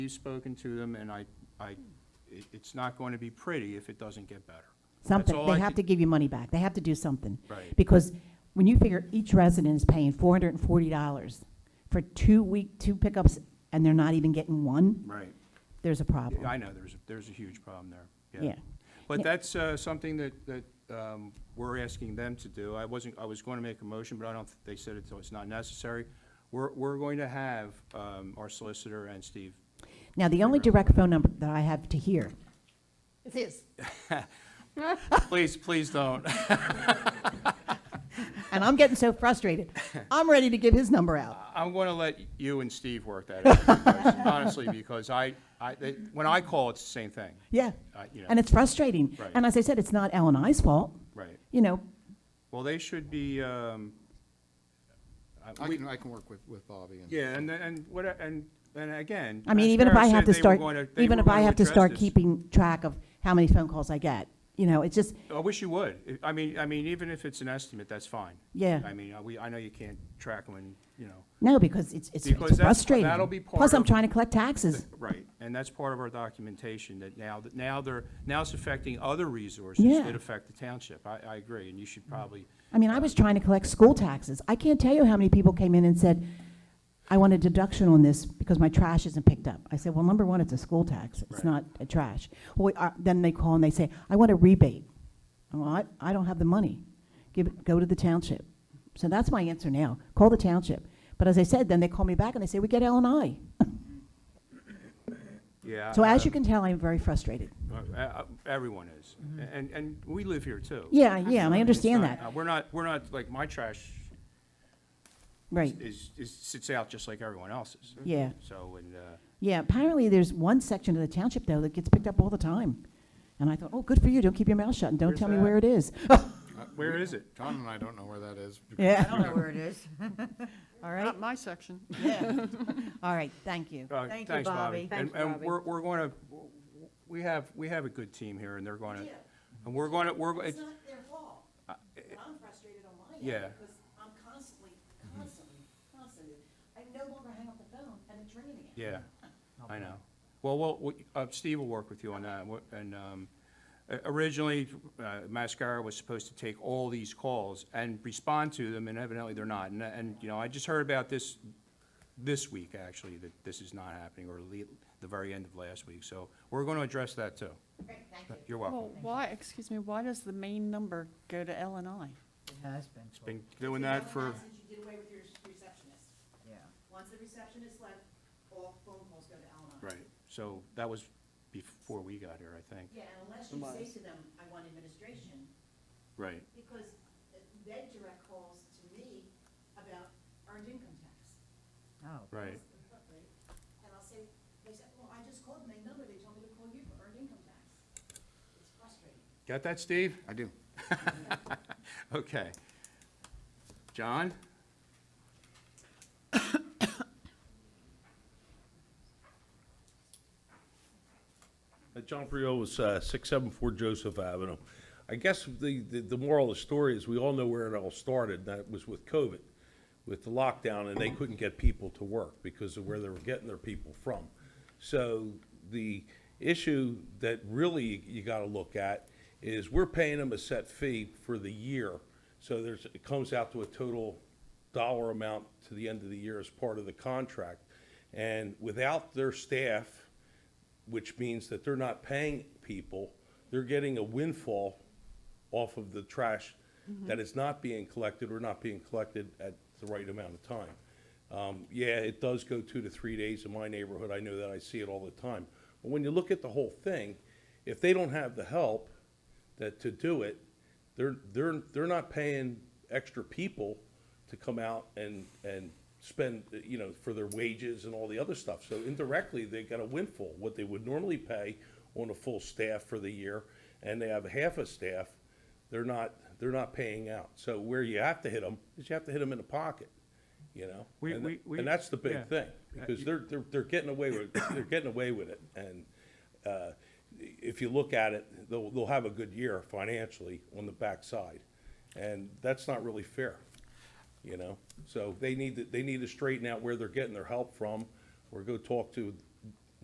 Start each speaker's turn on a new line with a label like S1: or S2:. S1: He's spoken to them, and I, I, it- it's not going to be pretty if it doesn't get better. all
S2: Something,
S1: I
S2: they have
S1: could-
S2: to give you money back, they have to do something.
S1: Right.
S2: Because when you figure each resident is paying four hundred and forty dollars for two week, two pickups, and they're not even getting one,
S1: Right.
S2: there's a problem.
S1: I know, there's, there's a huge problem there, yeah.
S2: Yeah.
S1: But
S2: Yeah.
S1: that's uh, something that, that um, we're asking them to do. I wasn't, I was going to make a motion, but I don't, they said it's, it's not necessary. We're, we're going to have um, our solicitor and Steve,
S2: Now, the only direct phone number that I have to hear is his,
S1: please, please don't.
S2: and I'm getting so frustrated, I'm ready to give his number out.
S1: I'm going to let you and Steve work that out, honestly, because I, I, they- when I call, it's the same thing.
S2: Yeah,
S1: I- uh, you know.
S2: and it's frustrating.
S1: Right.
S2: And as I said, it's not L and I's fault,
S1: Right.
S2: you know,
S1: Well, they should be, um, I-
S3: I
S1: we-
S3: can, I can work with, with Bobby and.
S1: yeah, and, and what, and, and again.
S2: I mean,
S1: as
S2: even if
S1: Farrah
S2: I
S1: said,
S2: have to
S1: they were
S2: start,
S1: gonna- they
S2: even
S1: were
S2: if I
S1: gonna
S2: have to
S1: address
S2: start
S1: this.
S2: keeping track of how many phone calls I get, you know, it's just,
S1: I wish you would. I- I mean, I mean, even if it's an estimate, that's fine.
S2: Yeah.
S1: I mean, I- we, I know you can't track them and, you know,
S2: no, because it's, it's
S1: Because
S2: it's
S1: that's-
S2: frustrating.
S1: that'll be part
S2: Plus, I'm
S1: of-
S2: trying to collect taxes.
S1: right. And that's part of our documentation that now, that now they're, now it's affecting other resources
S2: Yeah. Mm-hmm.
S1: that affect the township. I, I agree, and you should probably,
S2: I mean, I was trying to collect school taxes. I can't tell you how many people came in and said, I want a deduction on this because my trash isn't picked up. I said, well, number one, it's a school tax.
S1: Right.
S2: It's not a trash. Well, uh, then they call and they say, I want a rebate. Well, I, I don't have the money. Give it, go to the township. So that's my answer now. Call the township. But as I said, then they call me back and they say, we get L and I.
S1: yeah.
S2: So as you
S1: um,
S2: can tell, I'm very frustrated.
S1: uh, uh, Everyone is. And, and we live here too.
S2: Mm-hmm. Yeah, yeah, and I understand
S1: It's not-
S2: that.
S1: uh, We're not, we're not, like, my trash
S2: Right.
S1: is, is, sits out just like everyone else's.
S2: Yeah.
S1: So, and, uh,
S2: Yeah, apparently there's one section of the township though that gets picked up all the time. And I thought, oh, good for you, don't keep your mouth shut and don't
S1: Where's
S2: tell me
S1: that?
S2: where it is.
S3: Uh,
S1: where
S3: we-
S1: is it?
S3: John and I don't know where that is.
S2: Yeah.
S4: I don't know where it is.
S2: All right,
S4: Not my section.
S2: yeah. All right, thank you.
S1: Uh,
S4: Thank you,
S1: Thanks,
S4: Bobby.
S1: Bobby. And-
S4: Thanks,
S1: And
S4: Bobby.
S1: we're, we're going to, we have, we have a good team here, and they're going to, and we're going to, we're, go- it's-
S2: their fault. I'm frustrated on my
S1: yeah.
S2: because I'm constantly, constantly, constantly, I no longer hang up the phone and it's ringing again.
S1: yeah, I know. Well, well, we- uh, Steve will work with you on that, What- and um, o- originally, uh, Mascara was supposed to take all these calls and respond to them, and evidently they're not. And, and, you know, I just heard about this, this week, actually, that this is not happening, or le- the very end of last week, so we're going to address that, too.
S2: Great, thank you.
S1: You're welcome.
S4: Well, why, excuse me, why does the main number go to L and I?
S5: It has been,
S1: It's been doing that for,
S6: Since you did away with your receptionist.
S5: yeah.
S6: Once the receptionist left, all phone calls go to Alma.
S1: right, so that was before we got here, I think.
S6: Yeah, and unless you say to them, I want administration,
S1: Right.
S6: because they direct calls to me about earned income tax.
S5: Oh,
S1: Right,
S6: And I'll say, they said, well, I just called my number, they told me to call you for earned income tax. It's frustrating.
S1: got that, Steve?
S3: I do.
S1: Okay. John?
S7: Uh, John Priol was uh, 674 Joseph Avenue. I guess the, the the moral of the story is we all know where it all started, and that was with COVID, with the lockdown, and they couldn't get people to work because of where they were getting their people from. So the issue that really you got to look at is we're paying them a set fee for the year. So there's, it comes out to a total dollar amount to the end of the year as part of the contract. And without their staff, which means that they're not paying people, they're getting a windfall off of the trash that is not being collected or not being collected at the right amount of time. Um, yeah, it does go two to three days in my neighborhood, I know that, I see it all the time. But when you look at the whole thing, if they don't have the help that, to do it, they're, they're, they're not paying extra people to come out and, and spend, you know, for their wages and all the other stuff. So indirectly, they got a windfall, what they would normally pay on a full staff for the year, and they have half a staff, they're not, they're not paying out. So where you have to hit them is you have to hit them in the pocket, you know?
S1: We-
S7: And-
S1: we- we-
S7: And that's the
S1: yeah. Uh,
S7: big thing, because they're, they're, they're getting away with, they're getting away with it. And, uh, if you look at it, they'll, they'll have a good year financially on the backside. And that's not really fair, you know? So they need to, they need to straighten out where they're getting their help from, or go talk to